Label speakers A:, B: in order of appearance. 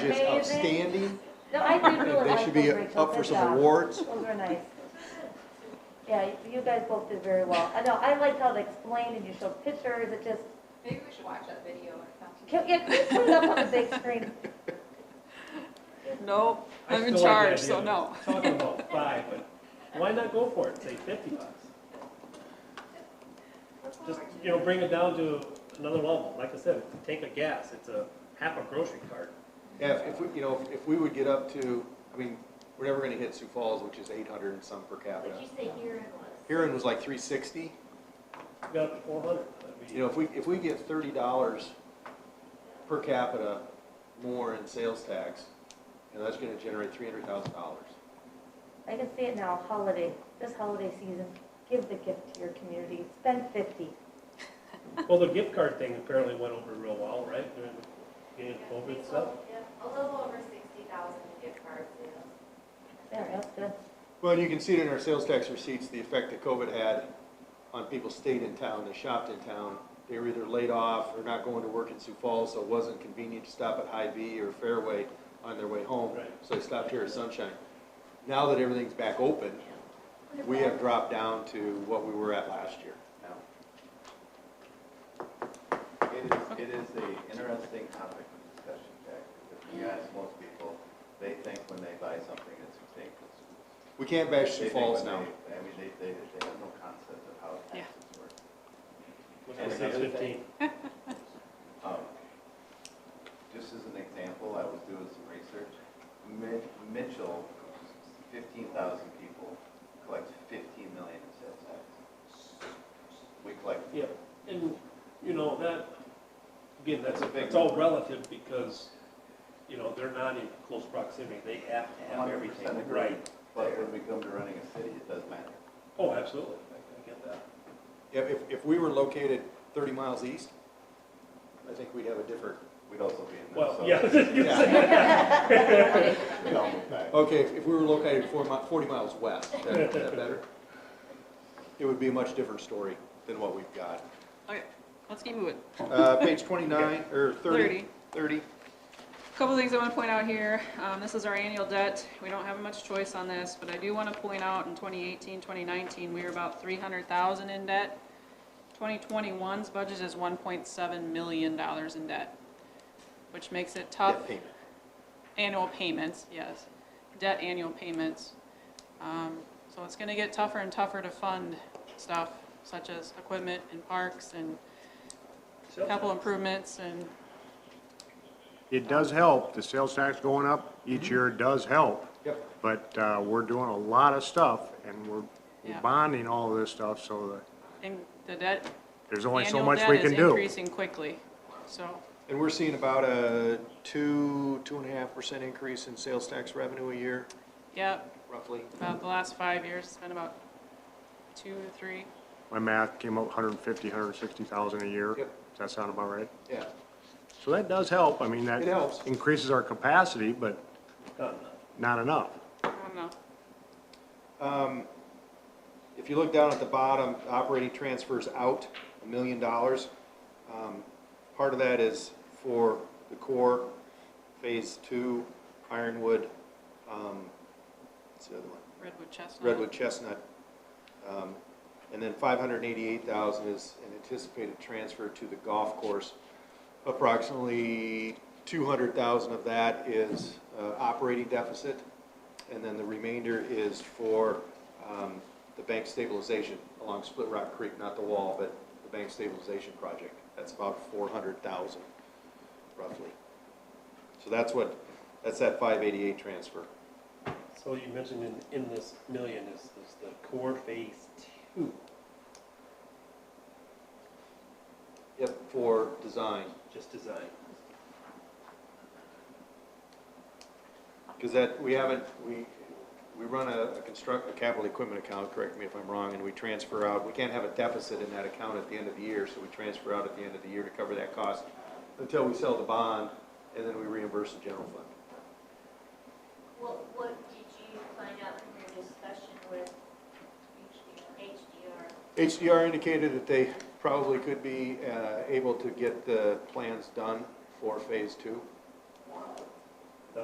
A: outstanding.
B: No, I did really
A: They should
B: like
A: be
B: those, Rachel.
A: up for
B: Good
A: some
B: job.
A: awards.
B: Those were nice. Yeah, you guys both did very well. I know, I liked how they explained and you showed pictures, it just,
C: Maybe we should watch that video or something.
B: can, yeah, can you put it up on the big screen?
D: Nope,
E: I
D: I'm in
E: still like the
D: charge,
E: idea
D: so
E: of
D: no.
E: Talking about five, but why not go for it, say fifty bucks? Just, you know, bring it down to another level, like I said, take a gas, it's a half a grocery cart.
A: Yeah, if we, you know, if we would get up to, I mean, we're never gonna hit Sioux Falls, which is eight hundred and some per capita.
F: What'd you say here it was?
A: Huron was like three sixty.
E: You got four hundred, that'd
A: You
E: be,
A: know, if we, if we get thirty dollars per capita more in sales tax, you know, that's gonna generate three hundred thousand dollars.
B: I can see it now, holiday, this holiday season, give the gift to your community, spend fifty.
E: well, the gift card thing apparently went over real well, right, during the beginning
F: Yeah,
E: of
F: we
E: COVID stuff?
F: sold, yeah, A little over sixty thousand in gift card sales.
B: There, that's good.
A: Well, and you can see it in our sales tax receipts, the effect that COVID had on people stayed in town, they shopped in town. They were either laid off or not going to work in Sioux Falls, so it wasn't convenient to stop at Hy-Vee or Fairway on their way home.
E: Right.
A: So they stopped here at Sunshine. Now that everything's back open, we have dropped down to what we were at last year now.
G: It is, it is a interesting topic of discussion, Jack, because if you ask most people, they think when they buy something, it's extinct.
A: We can't bash
G: They
A: Sioux
G: think when
A: Falls now.
G: they- I mean, they, they, they have no concept of how
D: Yeah.
G: taxes work.
E: Which was six fifteen.
G: Um, Just as an example, I was doing some research, Mi- Mitchell, fifteen thousand people, collects fifteen million in sales tax. We collect
E: Yeah, and, you know, that, again, that's,
G: That's a big
E: it's all
G: number.
E: relative because, you know, they're not in close proximity. They have to have
G: 100%
E: everything
G: agree.
E: right.
G: But when we come to running a city, it does matter.
E: Oh, absolutely. I get that.
A: If, if, if we were located thirty miles east, I think we'd have a different,
G: We'd also be in
E: Well,
G: Minnesota.
E: yeah. You
A: Yeah.
E: said-
A: you know, okay, if if we were located four mi- forty miles west, is that is that better? It would be a much different story than what we've got.
D: Okay, let's keep moving.
A: Uh, page twenty-nine, or thirty,
D: Thirty.
A: thirty,
D: Couple things I want to point out here. Um, This is our annual debt. We don't have much choice on this, but I do want to point out in 2018, 2019, we were about 300,000 in debt. 2021's budget is 1.7 million dollars in debt, which makes it tough.
A: debt payment.
D: Annual payments, yes. Debt annual payments. Um, So it's gonna get tougher and tougher to fund stuff such as equipment and parks and
E: So-
D: capital improvements and,
H: It does help, the sales tax going up each
D: Mm-hmm.
H: year does help,
A: Yep,
H: but uh, we're doing a lot of stuff, and we're we're
D: Yeah.
H: bonding all of this stuff, so that
D: and the debt,
H: there's only so
D: annual
H: much we
D: debt is
H: can do.
D: increasing quickly. So,
A: and we're seeing about a two, two and a half percent increase in sales tax revenue a year,
D: yeah,
A: roughly.
D: about the last five years, it's been about two to three.
H: My math came up 150, 160,000 a year. Does
A: Yep.
H: that sound about right?
A: Yeah,
H: So that does help, I mean, that
A: It helps.
H: increases our capacity, but not enough.
D: I don't know.
A: Um, If you look down at the bottom, operating transfers out, a million dollars. Um, Part of that is for the core, Phase Two, Ironwood, um, what's the other one?
D: Redwood chestnut.
A: Redwood Chestnut. Um, And then five hundred and eighty-eight thousand is an anticipated transfer to the golf course. Approximately two hundred thousand of that is uh, operating deficit, and then the remainder is for um, the bank stabilization along Split Rock Creek, not the wall, but the bank stabilization project. That's about four hundred thousand, roughly. So that's what, that's that five eighty-eight transfer.
E: So you mentioned in, in this million is, is the core phase two,
A: Yep, for design.
E: just design.
A: Because that, we haven't, we, we run a, a construct, a capital equipment account, correct me if I'm wrong, and we transfer out, we can't have a deficit in that account at the end of the year, so we transfer out at the end of the year to cover that cost until we sell the bond, and then we reimburse the general fund.
F: What, what did you find out from your discussion with HDR?
A: HDR indicated that they probably could be, uh, able to get the plans done for phase two.